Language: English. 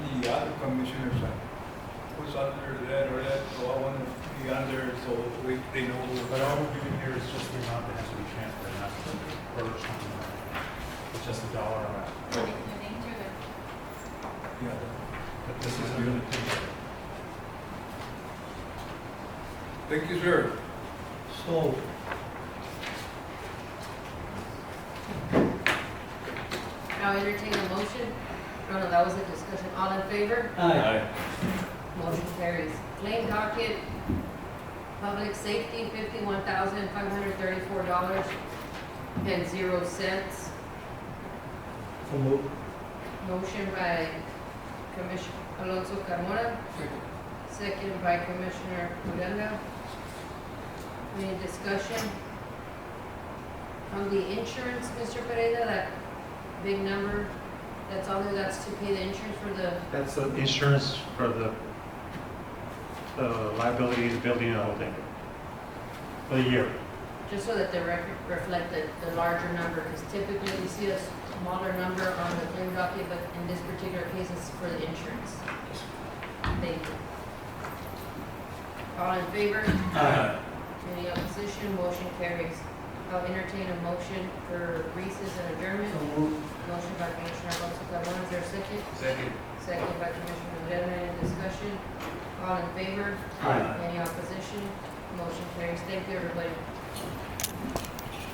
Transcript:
the other commissioners, uh, who's under that or that, so I want to be under, so we, they know. But all we're doing here is just the amount that has to be transferred, not purged. It's just a dollar amount. The names are there. Yeah. But this is a unit. Thank you, sir. So. Now entertain a motion. No, no, that was a discussion. All in favor? Aye. Motion carries. Claim docket, public safety, fifty-one thousand five hundred thirty-four dollars and zero cents. So moved. Motion by Commissioner Alonso Carmona, second by Commissioner Odena. Any discussion? On the insurance, Mr. Pereira, that big number, that's all there, that's to pay the insurance for the, That's the insurance for the, the liability, the building and the whole thing. For the year. just so that they rec- reflect the, the larger number, because typically we see a smaller number on the claim docket, but in this particular case, it's for the insurance. Thank you. All in favor? Aye. Any opposition, motion carries. I'll entertain a motion for recess and adjournment. So moved. Motion by Commissioner Alonso Carmona, is there a second? Second. Second by Commissioner Odena, any discussion? All in favor? Aye. Any opposition, motion carries. Thank you, everybody.